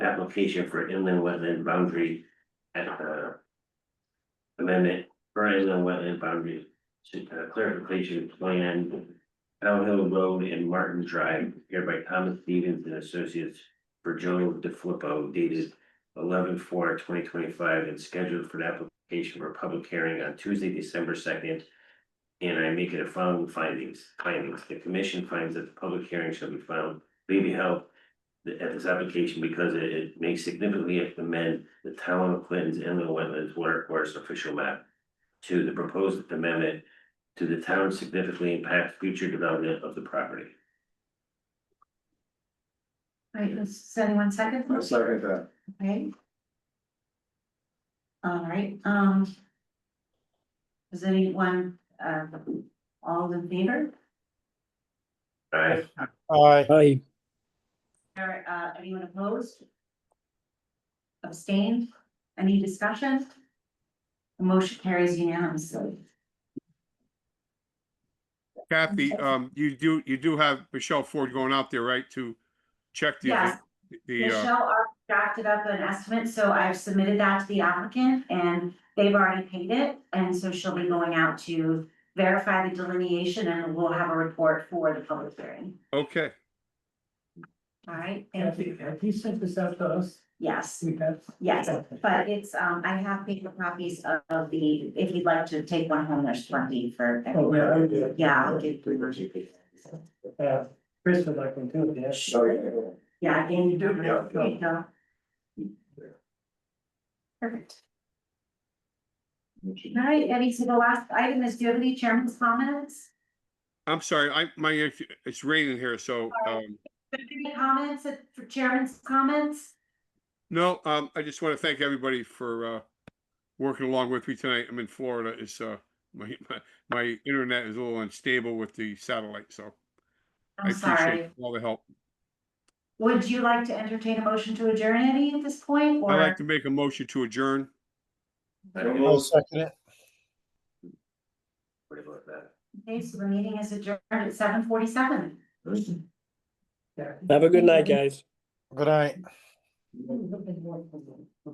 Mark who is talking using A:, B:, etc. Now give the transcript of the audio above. A: application for inland wetland boundary at the. Amendment for inland wetland boundary to uh, clarification plan. Downhill Road and Martin Drive here by Thomas Stevens and Associates for Joe DeFilippo dated 11-4-2025 and scheduled for an application for a public hearing on Tuesday, December second. And I make it a following findings, findings, the commission finds that the public hearing shall be found, may be held the- at this application because it, it may significantly amend the town of Clinton's inland wetlands water course official map. To the proposed amendment to the town significantly impact future development of the property.
B: Right, does anyone second?
C: I'll second that.
B: Okay. All right, um. Is anyone, uh, all in favor?
A: Alright,
D: Aye.
E: Aye.
B: Or, uh, anyone opposed? Abstained? Any discussion? The Motion carries unanimously.
F: Kathy, um, you do, you do have Michelle Ford going out there, right, to check the,
B: Yes.
F: the, uh,
B: Michelle already drafted up an estimate, so I've submitted that to the applicant and they've already paid it. And so she'll be going out to verify the delineation and we'll have a report for the public hearing.
F: okay,
B: All right, thank you.
G: Kathy, have you sent this out to us?
B: Yes,
G: We have?
B: yes,
G: Okay.
B: but it's, um, I have paper copies of- of the, if you'd like to take one home, there's plenty for.
G: Oh, yeah, I did.
B: Yeah, I'll give you
G: Uh, Chris would like one too, yes. Oh,
C: So,
B: Yeah, and you do.
C: Yeah, yeah.
B: Perfect. All right, Eddie, so the last item is, do you have any chairman's comments?
F: I'm sorry, I, my, it's raining here, so, um,
B: Any comments uh, for chairman's comments?
F: no, um, I just want to thank everybody for, uh, working along with me tonight. I'm in Florida, it's, uh, my, my, my internet is a little unstable with the satellite, so I
B: I'm sorry.
F: appreciate all the help.
B: Would you like to entertain a motion to adjourn, Eddie, at this point,
F: I'd
B: or
F: like to make a motion to adjourn.
A: I don't
D: I'll
A: know
D: second it.
A: what about that.
B: okay, so the meeting is adjourned at seven forty-seven.
G: Yeah.
E: Have a good night, guys.
D: Good night.